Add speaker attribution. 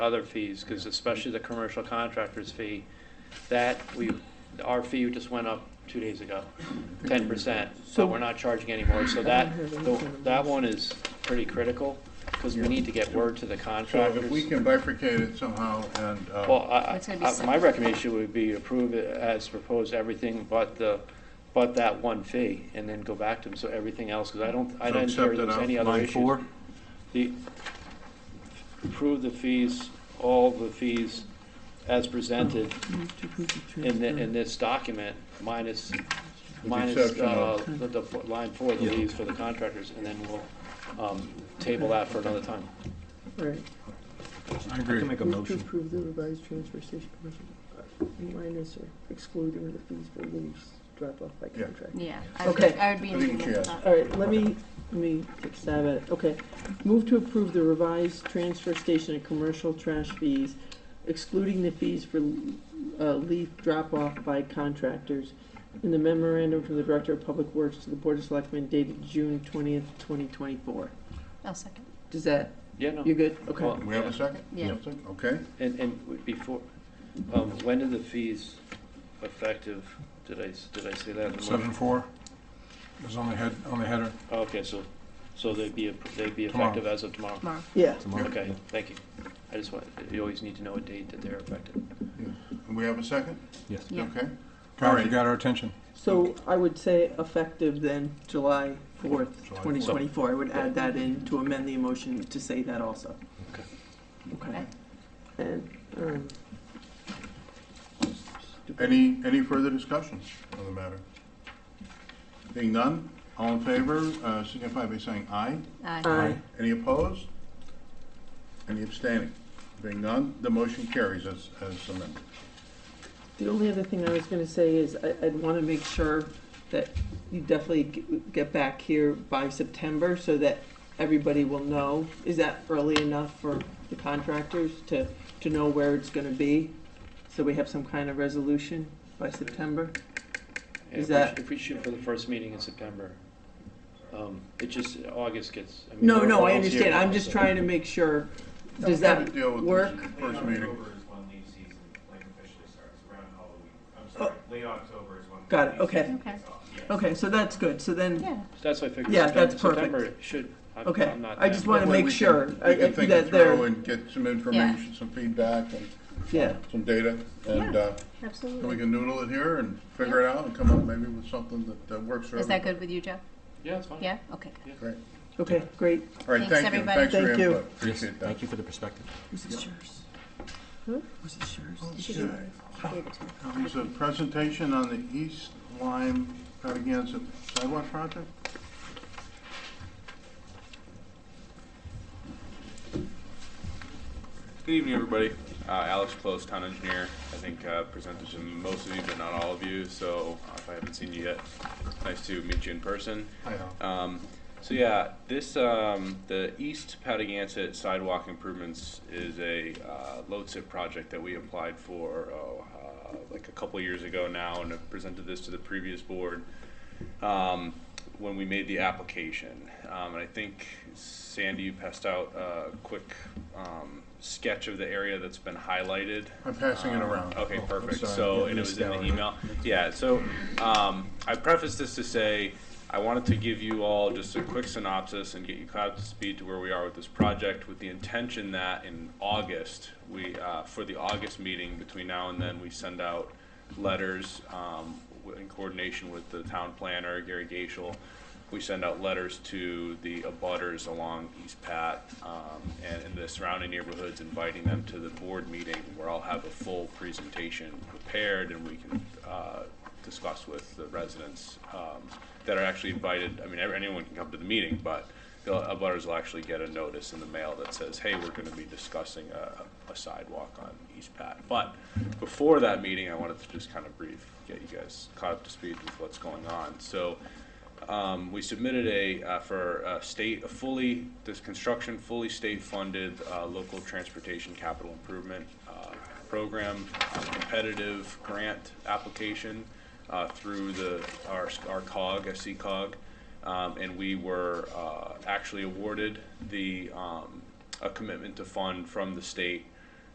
Speaker 1: other fees, because especially the commercial contractor's fee, that we, our fee just went up two days ago, ten percent, so we're not charging anymore, so that, that one is pretty critical, because we need to get word to the
Speaker 2: So if we
Speaker 1: contractors.
Speaker 2: can bifurcate it somehow and, uh,
Speaker 1: Well, I,
Speaker 3: It's gonna be
Speaker 1: I- I, my
Speaker 3: separate.
Speaker 1: recommendation would be approve it as proposed, everything but the, but that one fee, and then go back to them, so everything else, because I don't, I didn't
Speaker 2: So
Speaker 1: hear
Speaker 2: accept it
Speaker 1: there's
Speaker 2: out.
Speaker 1: any other
Speaker 4: Line
Speaker 1: issues.
Speaker 4: four,
Speaker 1: The, approve the fees, all the fees as presented in, thi- in this document, minus,
Speaker 2: the
Speaker 1: minus,
Speaker 2: exception
Speaker 1: uh,
Speaker 2: of-
Speaker 1: the, the fo- line four, the fees for the contractors, and then we'll, um, table that for another time.
Speaker 5: All right,
Speaker 4: I can make a
Speaker 5: move to
Speaker 4: motion.
Speaker 5: approve the revised transfer station commercial, uh, minus or excluding the fees for leaves dropped off by
Speaker 2: Yeah.
Speaker 5: contract.
Speaker 3: Yeah, I would,
Speaker 5: Okay.
Speaker 3: I would be
Speaker 2: I
Speaker 3: in
Speaker 2: think
Speaker 3: agreement
Speaker 2: yes.
Speaker 3: with that.
Speaker 5: All right, let me, let me take a stab at it. Okay. Move to approve the revised transfer station and commercial trash fees, excluding the fees for uh, leaf drop-off by contractors in the memorandum from the Director of Public Works to the Board of Selectmen dated June twentieth, twenty twenty-four.
Speaker 3: I'll second.
Speaker 5: Does that,
Speaker 1: Yeah, no,
Speaker 5: you're good? Okay.
Speaker 1: Well-
Speaker 2: we have a second?
Speaker 3: Yeah.
Speaker 2: We have a second? Okay,
Speaker 1: and, and before, um, when did the fees effective, did I, s- did I say that in the motion?
Speaker 6: Seven four is on the head, on the header.
Speaker 1: Okay, so, so they'd be, they'd be
Speaker 6: Tomorrow.
Speaker 1: effective as of tomorrow?
Speaker 3: Mark,
Speaker 5: Yeah.
Speaker 4: Tomorrow.
Speaker 1: Okay, thank you. I just want, you always need to know a date that they're effective.
Speaker 2: And we have a second?
Speaker 4: Yes.
Speaker 3: yeah.
Speaker 2: Okay. All
Speaker 6: Guys,
Speaker 2: right.
Speaker 6: you got our attention.
Speaker 5: So I would say effective then July fourth,
Speaker 2: July
Speaker 5: twenty twenty-four. I would add that in to amend the motion to say that also.
Speaker 1: Okay.
Speaker 5: Okay. And, um.
Speaker 2: Any, any further discussion on the matter? Being none, all in favor, uh, signify by saying aye.
Speaker 3: Aye.
Speaker 5: Aye.
Speaker 2: Any opposed? Any abstaining? Being none, the motion carries as, as amended.
Speaker 5: The only other thing I was gonna say is I, I'd wanna make sure that you definitely g- get back here by September so that everybody will know. Is that early enough for the contractors to, to know where it's gonna be? So we have some kind of resolution by September?
Speaker 1: And
Speaker 5: Is
Speaker 1: if we-
Speaker 5: that-
Speaker 1: If we shoot for the first meeting in September, um, it just, August gets. I mean,
Speaker 5: No,
Speaker 1: we're
Speaker 5: no, I
Speaker 1: almost here
Speaker 5: understand,
Speaker 1: now,
Speaker 5: I'm just
Speaker 1: so-
Speaker 5: trying to make sure, does
Speaker 2: We'll have
Speaker 5: that
Speaker 2: to deal with this
Speaker 5: work?
Speaker 2: First
Speaker 7: Late
Speaker 2: meeting.
Speaker 7: October is when leaf season, like officially starts, around Halloween. I'm sorry, late October is when.
Speaker 5: Got it,
Speaker 7: leaf
Speaker 5: okay.
Speaker 7: season
Speaker 3: Okay.
Speaker 7: kicks off, yes.
Speaker 5: Okay, so that's good, so then,
Speaker 3: Yeah,
Speaker 1: That's why I figured.
Speaker 5: Yeah, that's
Speaker 1: September-
Speaker 5: perfect.
Speaker 1: September should, I'm
Speaker 5: okay,
Speaker 1: I'm not.
Speaker 5: I
Speaker 1: that-
Speaker 5: just wanna
Speaker 2: That way
Speaker 5: make
Speaker 2: we can-
Speaker 5: sure.
Speaker 2: We
Speaker 5: I- I-
Speaker 2: can think
Speaker 5: that
Speaker 2: it
Speaker 5: they're-
Speaker 2: through and get some information, some feedback and
Speaker 5: Yeah,
Speaker 2: some data. And,
Speaker 3: Yeah.
Speaker 2: uh, then we
Speaker 3: absolutely.
Speaker 2: can noodle it here and figure it out and come up maybe with something that, that works for
Speaker 3: Is that
Speaker 2: everybody.
Speaker 3: good with you, Jeff?
Speaker 1: Yeah, it's fine.
Speaker 3: Yeah, okay. good.
Speaker 2: Great.
Speaker 5: okay, great.
Speaker 2: All right,
Speaker 3: Thanks,
Speaker 2: thank you.
Speaker 3: everybody.
Speaker 2: Thanks for your
Speaker 5: Thank you.
Speaker 2: input.
Speaker 4: Yes,
Speaker 2: Appreciate that.
Speaker 4: thank you for the perspective.
Speaker 5: Was it yours?
Speaker 3: Huh?
Speaker 5: Was it yours?
Speaker 3: She gave it- she gave it to me.
Speaker 2: There's a presentation on the East Lyme Patagonia Sidewalk Project.
Speaker 8: Good evening, everybody. Uh, Alex Close, Town Engineer. I think uh, presented to most of you, but not all of you, so uh, if I haven't seen you yet, nice to meet you in person.
Speaker 2: I know.
Speaker 8: Um, so yeah, this um, the East Patagonia sidewalk improvements is a uh, LoTSIP project that we applied for oh, uh, like a couple years ago now, and have presented this to the previous board um, when we made the application. Um, and I think Sandy you passed out a quick um, sketch of the area that's been highlighted.
Speaker 2: I'm passing it around.
Speaker 8: Okay,
Speaker 4: Oh, I'm
Speaker 8: perfect.
Speaker 4: sorry.
Speaker 8: So,
Speaker 4: Yeah,
Speaker 8: and it was in the
Speaker 4: Mr.
Speaker 8: email. Yeah, so um, I preface this to say, I wanted to give you all just a quick synopsis and get you caught up to speed to where we are with this project with the intention that in August, we, uh, for the August meeting, between now and then, we send out letters um, w- in coordination with the town planner, Gary Gaishel, we send out letters to the abutters along East Pat um, and in the surrounding neighborhoods, inviting them to the board meeting where I'll have a full presentation prepared and we can uh, discuss with the residents um, that are actually invited. I mean, ev- anyone can come to the meeting, but the abutters will actually get a notice in the mail that says, hey, we're going to be discussing a a sidewalk on East Pat. But before that meeting, I wanted to just kind of brief, get you guys caught up to speed with what's going on. So um, we submitted a, uh, for a state, a fully, this construction fully state-funded, uh, local transportation capital improvement, uh, program, uh, competitive grant application, uh, through the, our, our cog, SC cog. Um, and we were, uh, actually awarded the, um, a commitment to fund from the state